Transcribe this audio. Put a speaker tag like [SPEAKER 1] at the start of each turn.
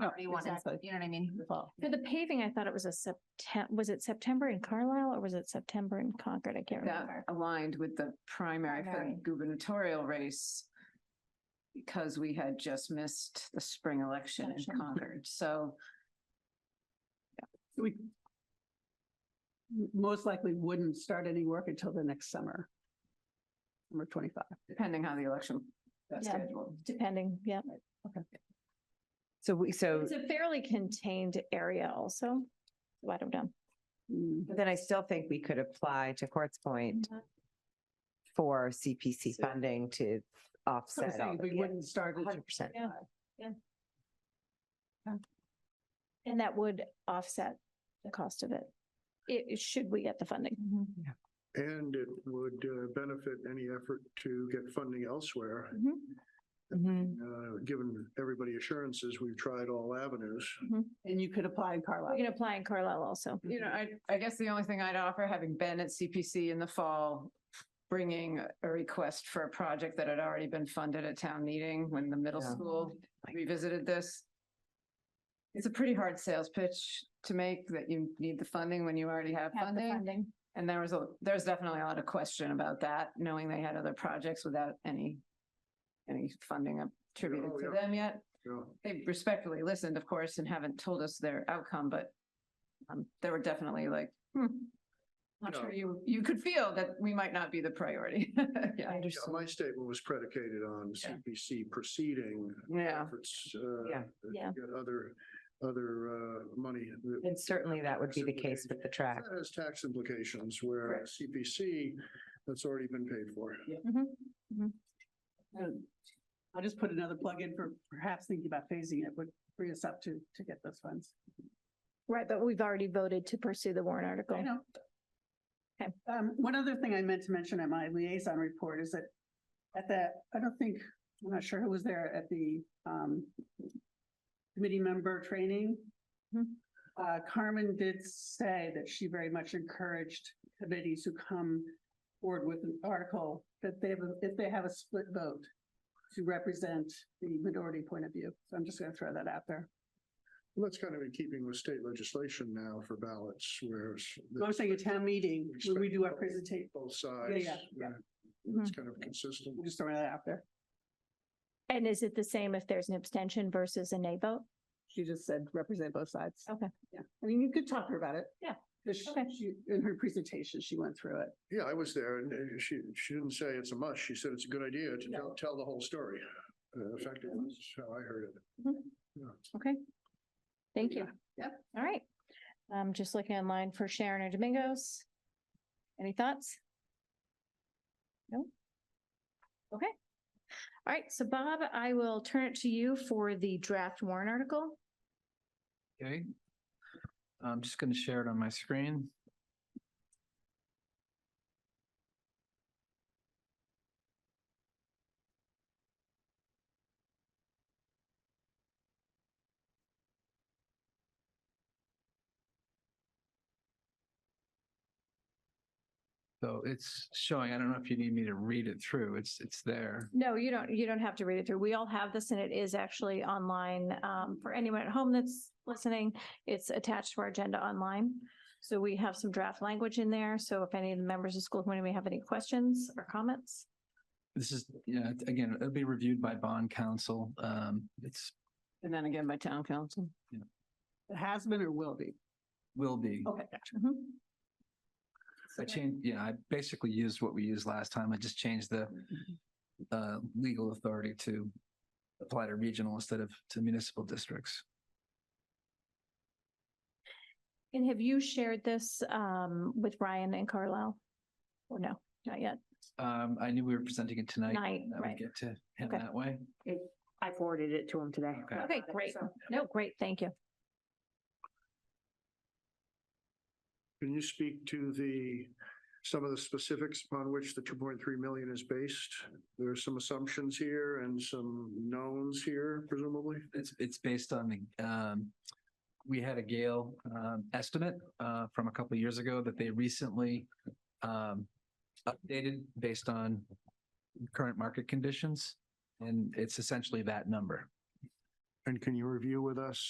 [SPEAKER 1] Oh,
[SPEAKER 2] you want
[SPEAKER 1] exactly.
[SPEAKER 2] inside, you know what I mean?
[SPEAKER 1] Well,
[SPEAKER 3] For the paving, I thought it was a Septem, was it September in Carlisle or was it September in Concord? I can't
[SPEAKER 1] that
[SPEAKER 3] remember.
[SPEAKER 1] aligned with the primary for
[SPEAKER 2] Primary.
[SPEAKER 1] the gubernatorial race because we had just missed the spring election in
[SPEAKER 2] Election.
[SPEAKER 1] Concord. So
[SPEAKER 4] We most likely wouldn't start any work until the next summer. Number twenty-five.
[SPEAKER 1] depending how the election got
[SPEAKER 3] Yeah.
[SPEAKER 1] scheduled.
[SPEAKER 3] Depending, yeah.
[SPEAKER 5] So we, so
[SPEAKER 3] It's a fairly contained area also. So I don't know.
[SPEAKER 4] Mm,
[SPEAKER 5] but then I still think we could apply to Court's point for CPC
[SPEAKER 4] So-
[SPEAKER 5] funding to
[SPEAKER 4] so I'm
[SPEAKER 5] offset all
[SPEAKER 4] saying We
[SPEAKER 5] the
[SPEAKER 4] wouldn't start it.
[SPEAKER 5] hundred percent.
[SPEAKER 3] And that would offset the cost of it. It, it- should we get the funding?
[SPEAKER 6] And it would uh, benefit any effort to get funding elsewhere.
[SPEAKER 3] Mm-hmm.
[SPEAKER 6] Uh, Given everybody assurances, we've tried all avenues.
[SPEAKER 4] And you could apply in
[SPEAKER 3] We can
[SPEAKER 4] Carlisle.
[SPEAKER 3] apply in Carlisle also.
[SPEAKER 1] You know, I, I guess the only thing I'd offer, having been at CPC in the fall, bringing a request for a project that had already been funded at town meeting when the middle
[SPEAKER 5] Yeah.
[SPEAKER 1] school revisited this. It's a pretty hard sales pitch to make that you need the funding when you already have
[SPEAKER 3] Have the
[SPEAKER 1] funding. And there was a, there's definitely a lot of question about that, knowing they had other projects without any, any funding attributed
[SPEAKER 6] Oh,
[SPEAKER 1] to
[SPEAKER 6] yeah.
[SPEAKER 1] them yet
[SPEAKER 6] you know.
[SPEAKER 1] they respectfully listened, of course, and haven't told us their outcome, but um, they were definitely like, hmm. I'm sure
[SPEAKER 6] No.
[SPEAKER 1] you, you could feel that we might not be the priority. Yeah.
[SPEAKER 6] Yeah, My statement was predicated on CPC proceeding
[SPEAKER 1] Yeah.
[SPEAKER 6] efforts. uh,
[SPEAKER 5] Yeah.
[SPEAKER 6] to
[SPEAKER 3] Yeah.
[SPEAKER 6] Get other, other uh, money. that-
[SPEAKER 5] And certainly that would be the
[SPEAKER 6] Absolutely.
[SPEAKER 5] case with the track.
[SPEAKER 6] That has tax implications where
[SPEAKER 1] Correct.
[SPEAKER 6] CPC, that's already been paid for.
[SPEAKER 3] Mm-hmm.
[SPEAKER 4] Um, I'll just put another plug in for perhaps thinking about phasing it would free us up to, to get those funds.
[SPEAKER 3] Right, but we've already voted to pursue the warrant article.
[SPEAKER 4] I know.
[SPEAKER 3] Okay.
[SPEAKER 4] Um, one other thing I meant to mention at my liaison report is that at the, I don't think, I'm not sure who was there at the, um, committee member training.
[SPEAKER 3] Mhm.
[SPEAKER 4] Uh, Carmen did say that she very much encouraged committees who come forward with an article that they have, a- if they have a split vote to represent the minority point of view. So I'm just going to throw that out there.
[SPEAKER 6] Well, That's kind of in keeping with state legislation now for ballots, whereas. the-
[SPEAKER 4] I'm saying a town meeting, when we do our presentation,
[SPEAKER 6] Both sides.
[SPEAKER 4] yeah, yeah.
[SPEAKER 6] uh, That's kind of consistent.
[SPEAKER 4] I'm just throwing that out there.
[SPEAKER 3] And is it the same if there's an abstention versus a nay vote?
[SPEAKER 4] She just said represent both sides.
[SPEAKER 3] Okay.
[SPEAKER 4] Yeah, I mean, you could talk to her about it.
[SPEAKER 3] Yeah.
[SPEAKER 4] 'Cause she-
[SPEAKER 3] Okay.
[SPEAKER 4] she, in her presentation, she went through it.
[SPEAKER 6] Yeah, I was there and uh, she, she didn't say it's a must. She said it's a good idea to tell, tell the whole story. Uh, Effectively, that's how I heard it.
[SPEAKER 3] Okay. Thank you.
[SPEAKER 1] Yep.
[SPEAKER 3] All right. I'm just looking online for Sharon or Domingos. Any thoughts? No? Okay. All right. So Bob, I will turn it to you for the draft warrant article.
[SPEAKER 7] Okay. I'm just going to share it on my screen. So it's showing, I don't know if you need me to read it through. It's, it's there.
[SPEAKER 3] No, you don't, you don't have to read it through. We all have this and it is actually online. Um, for anyone at home that's listening, it's attached to our agenda online. So we have some draft language in there. So if any of the members of the school committee may have any questions or comments.
[SPEAKER 7] This is, yeah, it- again, it'll be reviewed by bond counsel. Um, it's,
[SPEAKER 1] And then again by town council.
[SPEAKER 4] It has been or will be.
[SPEAKER 7] will be.
[SPEAKER 4] Okay, gotcha.
[SPEAKER 3] Mhm.
[SPEAKER 7] I changed, yeah, I basically used what we used last time. I just changed the
[SPEAKER 3] Mm-hmm.
[SPEAKER 7] uh, legal authority to apply to regional instead of to municipal districts.
[SPEAKER 3] And have you shared this um with Ryan and Carlisle? Or no, not yet?
[SPEAKER 7] Um, I knew we were presenting it tonight.
[SPEAKER 3] Night,
[SPEAKER 7] I would
[SPEAKER 3] right.
[SPEAKER 7] get to him
[SPEAKER 3] Okay.
[SPEAKER 7] that way.
[SPEAKER 2] I forwarded it to him today.
[SPEAKER 7] Okay.
[SPEAKER 3] Okay, great. No, great, thank you.
[SPEAKER 6] Can you speak to the, some of the specifics upon which the two point three million is based? There are some assumptions here and some knowns here presumably.
[SPEAKER 7] It's, it's based on the, um, we had a Gale, um, estimate, uh, from a couple of years ago that they recently, um, updated based on current market conditions. And it's essentially that number.
[SPEAKER 6] And can you review with us